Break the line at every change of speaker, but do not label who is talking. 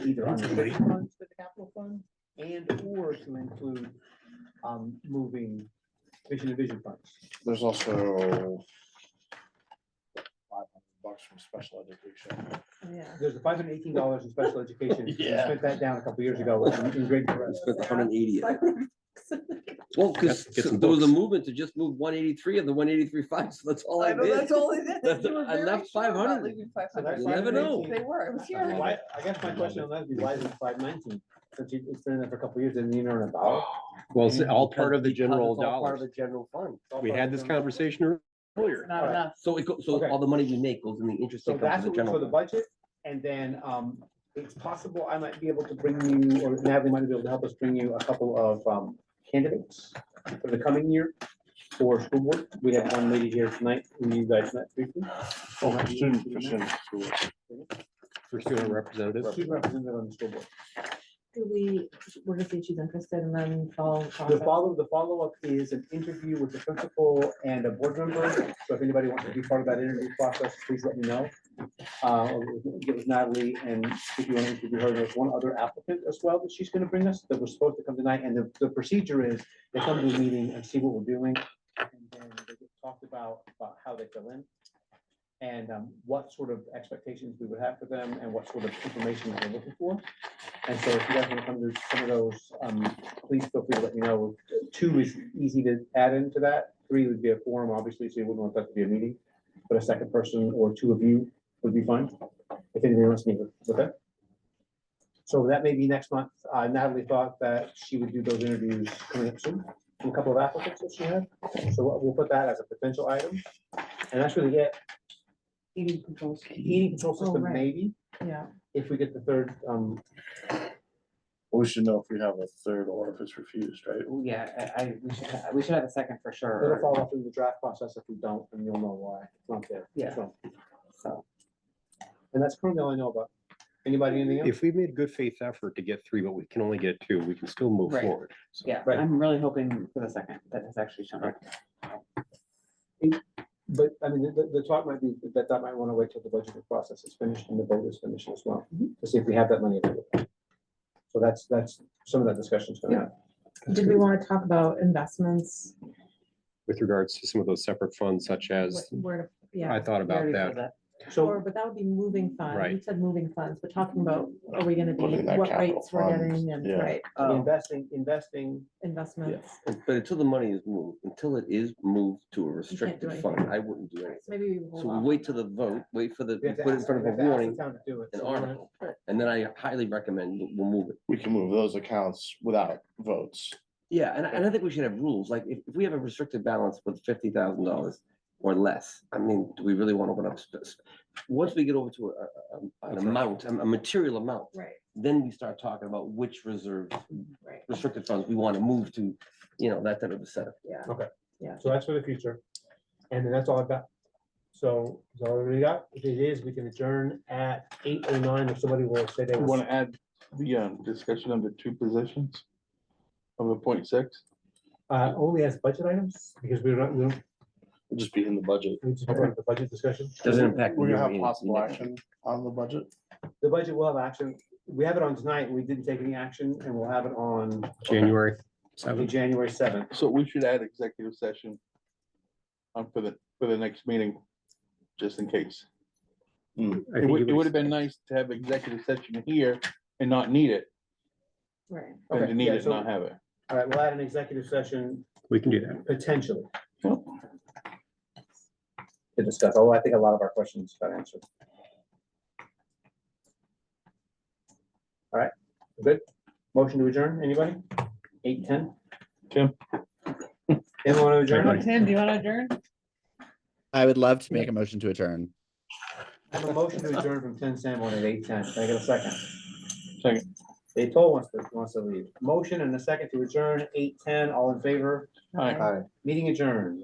either on
Into the
the
funds, the capital fund, and or to include, um, moving vision to vision funds.
There's also. five hundred Bucks from special education.
Yeah.
There's five hundred eighteen dollars in special education. We
Yeah.
Spent that down a couple years ago in in great progress.
Spent the hundred and eighty. of it. Well, because
Get- get some
there was a
books.
movement to just move one eighty-three of the one eighty-three five, so that's all I
I know,
did.
that's all they did.
That's-
They were
I
very
left
sure about
500.
leaving 500.
That's
You never know.
518.
They were, it was here.
Why, I guess my question on that would be why is it five nineteen? Since you- it's been there for a couple years and you know about.
Well, it's all part of the
Because
general
it's all Part of
dollars.
the general fund.
We had this conversation earlier.
Not enough.
So it goes, so
Okay.
all the money we make goes in the interest
So
income
that's
for the
what we- for
general.
the
fund.
budget, and then, um, it's possible I might be able to bring you, or Natalie might be able to help us bring you a couple of, um, candidates for the coming year for school board. We have one lady here tonight, who you guys met briefly.
Oh, for student, for student. school.
For student representatives.
She's representative on the school board.
Do we, we're gonna see if she's interested and then follow.
The follow, the follow-up is an interview with the principal and a board member. So if anybody wants to be part of that interview process, please let me know. Uh, Get with Natalie and if you want to interview her, there's one other applicant as well that she's going to bring us that was supposed to come tonight. And the, the procedure is they come to the meeting and see what we're doing. And then they get talked about, about how they fill in and um, what sort of expectations we would have for them and what sort of information that we're looking for. And so if you guys want to come to some of those, um, please feel free to let me know. Two is easy to add into that. Three would be a forum, obviously, so you wouldn't want that to be a meeting. But a second person or two of you would be fine, if anybody wants to meet with, okay? So that may be next month. Uh, Natalie thought that she would do those interviews coming up soon, from a couple of applicants that she had. So we'll- we'll put that as a potential item. And that's really it.
Eating controls.
Heating control
Oh,
system,
right.
maybe,
Yeah.
if we get the third, um,
We should know if we have a third or if it's refused, right?
Oh, yeah, I, I, we should, ha- we should have a second for
It'll
sure,
follow through the draft process if we don't, and you'll know why. It's not there.
Yeah.
So,
so.
And that's currently all I know about. Anybody, anything else?
If we made a good faith effort to get three, but we can only get two, we can still move
Right.
forward. So-
Yeah,
Right.
I'm really hoping for the second, that has actually shown up.
But, I mean, the, the talk might be, that that might want to wait till the budgeting process is finished and the vote is finished as well,
Mm-hmm.
to see if we have that money available. So that's, that's, some of that discussion's going on.
Did we want to talk about investments?
With regards to some of those separate funds such as,
What- Where, to
I
yeah,
thought
We
about
already said
that.
So,
or, but that would be moving funds. You
Right.
said moving funds, but talking about, are we gonna be,
Looking at
what
capital
rates we're
funds,
getting and,
yeah.
right,
uh,
Oh,
investing, investing,
investments.
But until the money is moved, until it is moved to a
do
restricted
anything.
fund, I wouldn't do
Right,
anything.
So maybe we. hold
So we
off
wait
on
till the
that.
vote, wait for the,
we have to
put it in
ask-
front
we
of a
have to ask the
warning,
town to do it.
an
So we're gonna-
article, and then I highly recommend we'll- we'll move it.
We can move those accounts without votes.
Yeah, and I, and I think we should have rules, like if, if we have a restricted balance with fifty thousand dollars or less, I mean, do we really want to open up space? Once we get over to a- a, a, an
That's right.
amount, a a material amount,
Right,
then we start talking about which reserves,
right.
restricted funds we want to move to, you know, that type of a setup.
So that's for the future. And then that's all I've got. So, is all we got? If it is, we can adjourn at eight oh nine if somebody will say they want.
to add the um, discussion of the two positions of a point six?
Uh, only as budget items, because we're not, we don't,
It'll just be in the budget.
we just have the budget discussion.
Doesn't impact.
We're gonna
the
have possible action on the budget.
The budget will have action. We have it on tonight. We didn't take any action and we'll have it on
January
on
seventh.
January seventh.
So we should add executive session um, for the, for the next meeting, just in case.
I
It
think
would,
you
it would have
would-
been nice to have executive session here and not need it,
Right.
than
Okay,
to need
yeah,
it, and
so-
not have it.
All right, we'll add an executive session
We can do that.
potentially. To discuss, although I think a lot of our questions got answered. All right, good. Motion to adjourn, anybody? Eight, ten?
Tim?
Anyone want to adjourn?
Everybody.
Tim, do you want to adjourn?
I would love to make a motion to adjourn.
I have a motion to adjourn from ten Sanborn at eight ten. Can I get a second?
Second.
They told wants to, wants to leave. Motion and a second to adjourn, eight ten, all in favor,
Aye.
meeting adjourned.